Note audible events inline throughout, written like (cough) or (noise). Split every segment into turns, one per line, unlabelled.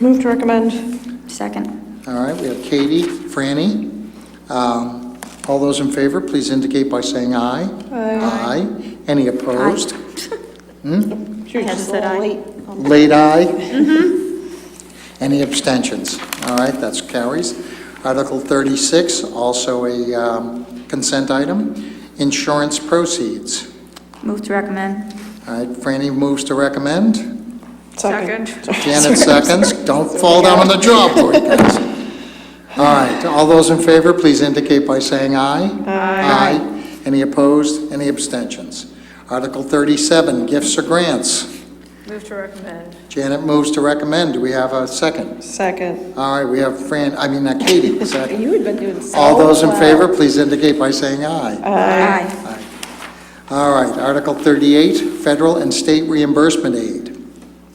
Move to recommend.
Second.
All right, we have Katie, Franny. Um, All those in favor, please indicate by saying aye.
Aye.
Aye. Any opposed?
She was
I had
just a
said
little
aye.
late.
Late aye? Any abstentions? All right, that's carries. Article 36, also a um, consent item, insurance proceeds.
Move to recommend.
All right, Franny moves to recommend.
Second.
Janet seconds. Don't fall down on the job board, guys. All right, all those in favor, please indicate by saying aye.
Aye.
Any opposed? Any abstentions? Article 37, gifts or grants.
Move to recommend.
Janet moves to recommend. Do we have a second?
Second.
All right, we have Fran, I mean, uh, Katie, second.
You had been doing so
All those in
well.
favor, please indicate by saying aye.
Aye.
All right, Article 38, federal and state reimbursement aid.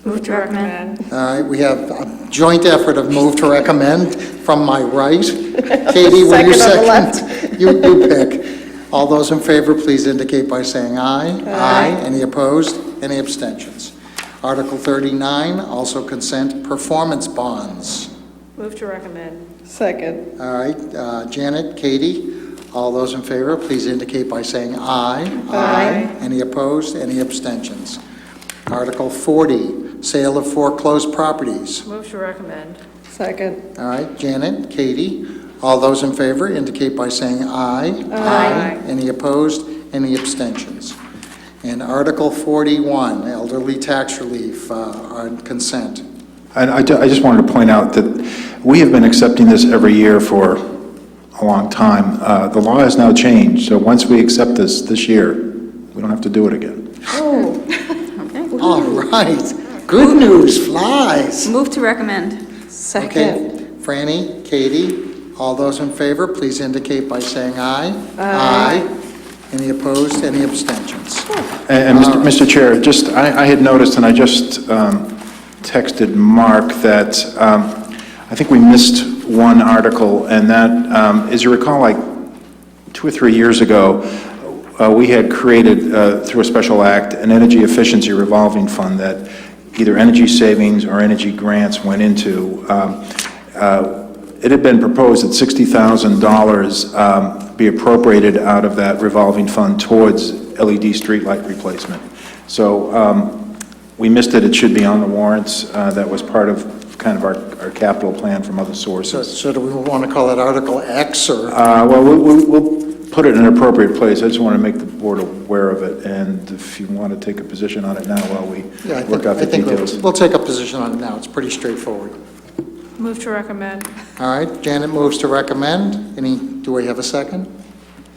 Move to recommend.
All right, we have a joint effort of move to recommend from
(laughs)
my right. Katie, will you
Second on the
second? You, you pick. All those in favor, please indicate by saying aye. Aye. Any opposed? Any abstentions? Article 39, also consent, performance bonds.
Move to recommend. Second.
All right, uh, Janet, Katie, all those in favor, please indicate by saying aye.
Aye.
Any opposed? Any abstentions? Article 40, sale of foreclosed properties.
Move to recommend. Second.
All right, Janet, Katie, all those in favor indicate by saying aye.
Aye.
Any opposed, any abstentions? And Article 41, elderly tax relief uh, on consent.
And I, ju- I just wanted to point out that we have been accepting this every year for a long time. Uh, the law has now changed, so once we accept this, this year, we don't have to do it again.
All right, good news flies.
Move to recommend.
Okay,
Second.
Franny, Katie, all those in favor, please indicate by saying aye.
Aye.
Any opposed, any abstentions?
And, and Mr. Mr. Chair, just, I, I had noticed, and I just um, texted Mark that um, I think we missed one article, and that, um, as you recall, like two or three years ago, uh, we had created, uh, through a special act, an energy efficiency revolving fund that either energy savings or energy grants went into. Um, uh, It had been proposed that $60,000 um, be appropriated out of that revolving fund towards LED streetlight replacement. So um, we missed it, it should be on the warrants, Uh, that was part of kind of our our capital plan from other
So-
sources.
So do we want to call it Article X or?
Uh, Well, we- we- we'll put it in an appropriate place. I just want to make the board aware of it, and if you want to take a position on it now while we
Yeah, I think-
work out
I
the
think we'll-
details.
We'll take a position on it now, it's pretty straightforward.
Move to recommend.
All right, Janet moves to recommend. Any, do we have a second?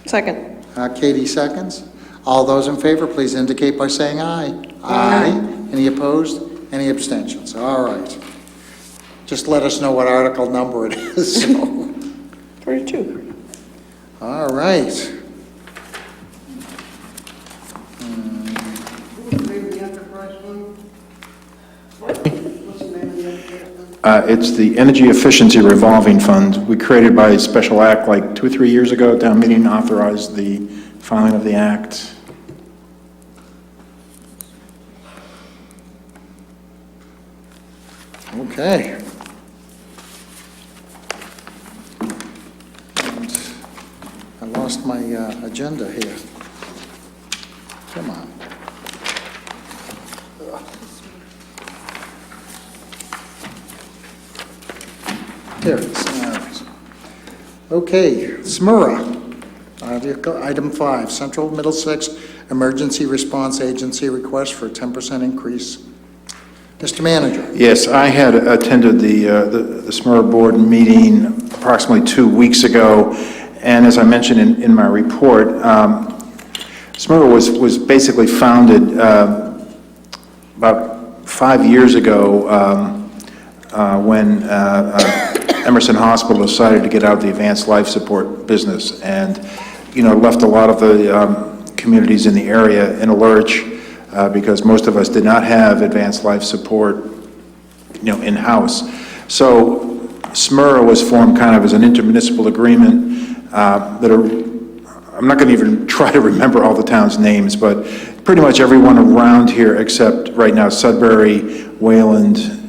Second.
Uh, Katie seconds. All those in favor, please indicate by saying aye. Aye. Any opposed? Any abstentions? All right. Just let us know what article number it is, (laughs) so.
Forty-two.
All right.
Uh, It's the Energy Efficiency Revolving Fund, we created by special act like two or three years ago. Town meeting authorized the filing of the act.
Okay. And I lost my uh, agenda here. Come on. There it is. All right. Okay, SMURA, Article- item five, Central Middlesex Emergency Response Agency request for a 10% increase. Mr. Manager.
Yes, I had attended the, uh, the the SMER board meeting approximately two weeks ago, and as I mentioned in, in my report, um, SMER was, was basically founded uh, about five years ago, um, uh, when uh, uh, Emerson Hospital decided to get out of the advanced life support business, and, you know, left a lot of the um, communities in the area in a lurch, uh, because most of us did not have advanced life support you know, in-house. So SMERA was formed kind of as an intermunicipal agreement uh, that are, I'm not going to even (laughs) try to remember all the towns' names, but pretty much everyone around here except right now Sudbury, Wayland,